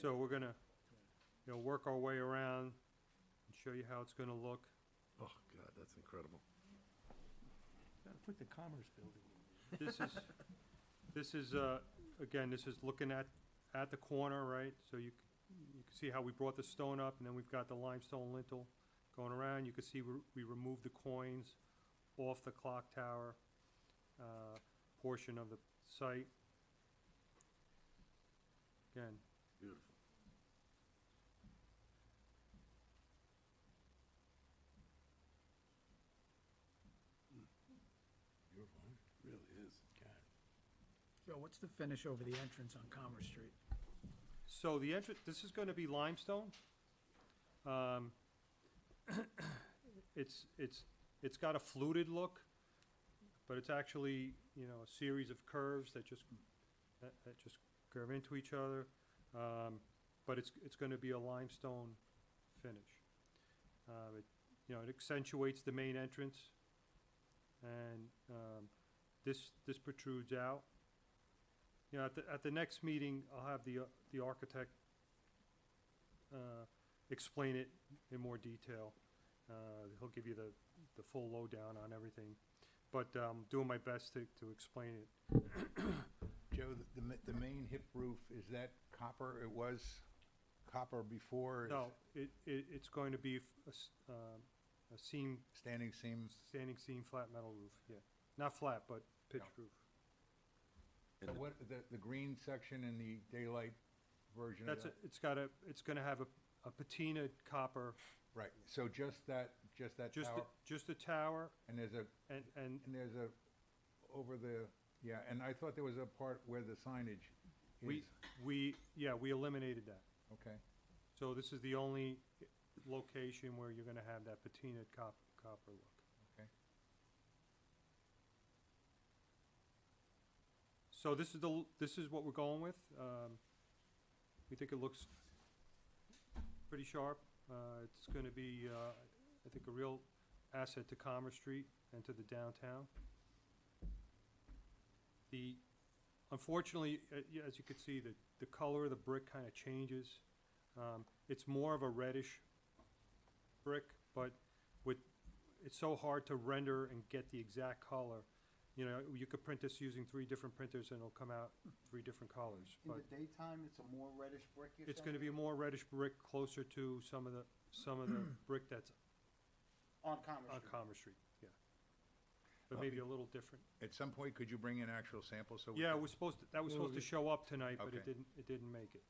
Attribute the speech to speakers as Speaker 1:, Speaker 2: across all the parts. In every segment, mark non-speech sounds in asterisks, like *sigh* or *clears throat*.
Speaker 1: So we're gonna, you know, work our way around and show you how it's gonna look.
Speaker 2: Oh, God, that's incredible.
Speaker 3: Gotta put the Commerce Building in.
Speaker 1: This is, this is, uh, again, this is looking at, at the corner, right? So you, c- you can see how we brought the stone up, and then we've got the limestone lintel going around. You can see we we removed the coins off the clock tower uh, portion of the site. Again,
Speaker 2: Beautiful. Hmm. Beautiful, huh? Really is.
Speaker 4: Joe, what's the finish over the entrance on Commerce Street?
Speaker 1: So the entrance, this is going to be limestone. Um, *coughs* It's, it's, it's got a fluted look, but it's actually, you know, a series of curves that just, that that just curve into each other. Um, But it's, it's going to be a limestone finish. Uh, it- You know, it accentuates the main entrance, and um, this, this protrudes out. You know, at the, at the next meeting, I'll have the, uh, the architect uh, explain it in more detail. Uh, He'll give you the, the full lowdown on everything, but um, doing my best to, to explain it.
Speaker 5: Joe, the, the ma- the main hip roof, is that copper? It was copper before? is
Speaker 1: No, it, it, it's going to be f- a s- um, a seam,
Speaker 5: Standing seams?
Speaker 1: standing seam flat metal roof, yeah. Not flat, but pitched
Speaker 5: No.
Speaker 1: roof.
Speaker 5: So what, the, the green section and the daylight version of
Speaker 1: That's,
Speaker 5: that?
Speaker 1: it. it's got a, it's going to have a a patina copper,
Speaker 5: Right, so just that, just that
Speaker 1: just, the-
Speaker 5: tower?
Speaker 1: just the tower
Speaker 5: And there's a,
Speaker 1: and, and
Speaker 5: and there's a, over the, yeah, and I thought there was a part where the signage
Speaker 1: We,
Speaker 5: is,
Speaker 1: we, yeah, we eliminated that.
Speaker 5: okay?
Speaker 1: So this is the only location where you're gonna have that patina cop, copper look.
Speaker 5: Okay.
Speaker 1: So this is the, this is what we're going with. Um, we think it looks pretty sharp. Uh, it's gonna be, uh, I think a real asset to Commerce Street and to the downtown. The, unfortunately, uh, yeah, as you can see, the, the color of the brick kinda changes. Um, It's more of a reddish brick, but with, it's so hard to render and get the exact color. You know, you could print this using three different printers and it'll come out three different colors.
Speaker 6: In the
Speaker 1: But
Speaker 6: daytime, it's a more reddish brick, you're
Speaker 1: it's
Speaker 6: saying?
Speaker 1: gonna be a more reddish brick closer to some of the, some of
Speaker 5: *clears throat*
Speaker 1: the brick that's
Speaker 6: On Commerce
Speaker 1: on
Speaker 6: Street.
Speaker 1: Commerce Street, yeah. But maybe a little different.
Speaker 5: At some point, could you bring in actual samples so we
Speaker 1: Yeah, it
Speaker 5: could-
Speaker 1: was supposed, to- that was supposed to show up tonight, but it
Speaker 5: Okay.
Speaker 1: didn't, it didn't make it,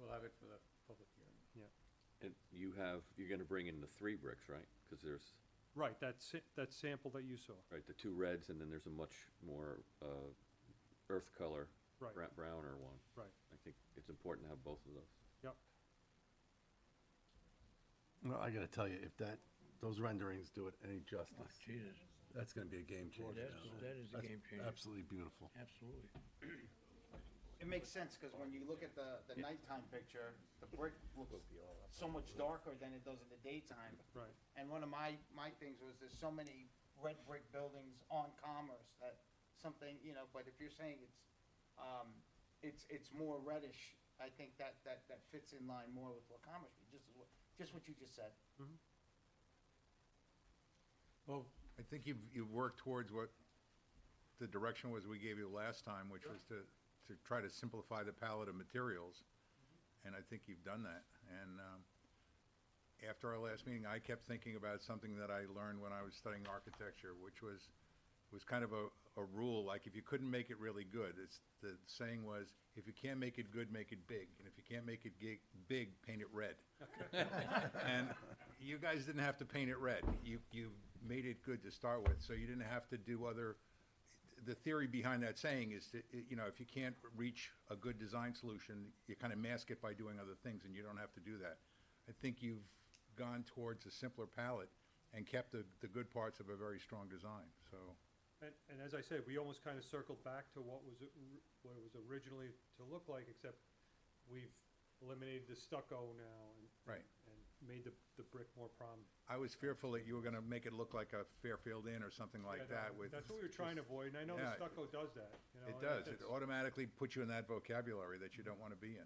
Speaker 3: We'll have it for the public hearing.
Speaker 1: yeah.
Speaker 7: And you have, you're gonna bring in the three bricks, right? Because there's,
Speaker 1: Right, that, sa- that sample that you saw,
Speaker 7: right, the two reds, and then there's a much more uh, earth color,
Speaker 1: Right.
Speaker 7: bra- browner one.
Speaker 1: right,
Speaker 7: I think it's important to have both of those.
Speaker 1: yep.
Speaker 2: Well, I gotta tell you, if that, those renderings do it any justice,
Speaker 3: Oh, Jesus,
Speaker 2: that's gonna be a game changer.
Speaker 3: That's- that is a
Speaker 2: That's
Speaker 3: game changer.
Speaker 2: Absolutely beautiful.
Speaker 3: absolutely.
Speaker 6: It makes sense, because when you look at the, the nighttime picture, the brick looks so much darker than it does in the daytime.
Speaker 1: Right.
Speaker 6: And one of my, my things was there's so many red brick buildings on Commerce that something, you know, but if you're saying it's, um, it's, it's more reddish, I think that, that, that fits in line more with what Commerce, Street, just, as what- just what you just said.
Speaker 3: Well,
Speaker 5: I think you've, you've worked towards what the direction was we gave you last time, which was to, to try to simplify the palette of materials. And I think you've done that. And, um, after our last meeting, I kept thinking about something that I learned when I was studying architecture, which was, was kind of a, a rule, like if you couldn't make it really good, it's, the saying was, if you can't make it good, make it big. And if you can't make it gig, big, paint it red. And you guys didn't have to paint it red. You, you made it good to start with, so you didn't have to do other, the theory behind that saying is that, you know, if you can't reach a good design solution, you kind of mask it by doing other things, and you don't have to do that. I think you've gone towards a simpler palette and kept the, the good parts of a very strong design, so.
Speaker 1: And, and as I said, we almost kind of circled back to what was, or- what it was originally to look like, except we've eliminated the stucco now and.
Speaker 5: Right.
Speaker 1: And made the, the brick more prominent.
Speaker 5: I was fearful that you were gonna make it look like a Fairfield Inn or something like that with.
Speaker 1: That's what we were trying to avoid, and I know the
Speaker 5: Yeah.
Speaker 1: stucco does that, you know.
Speaker 5: It
Speaker 1: and
Speaker 5: does. It
Speaker 1: that's-
Speaker 5: automatically puts you in that vocabulary that you don't want to be in.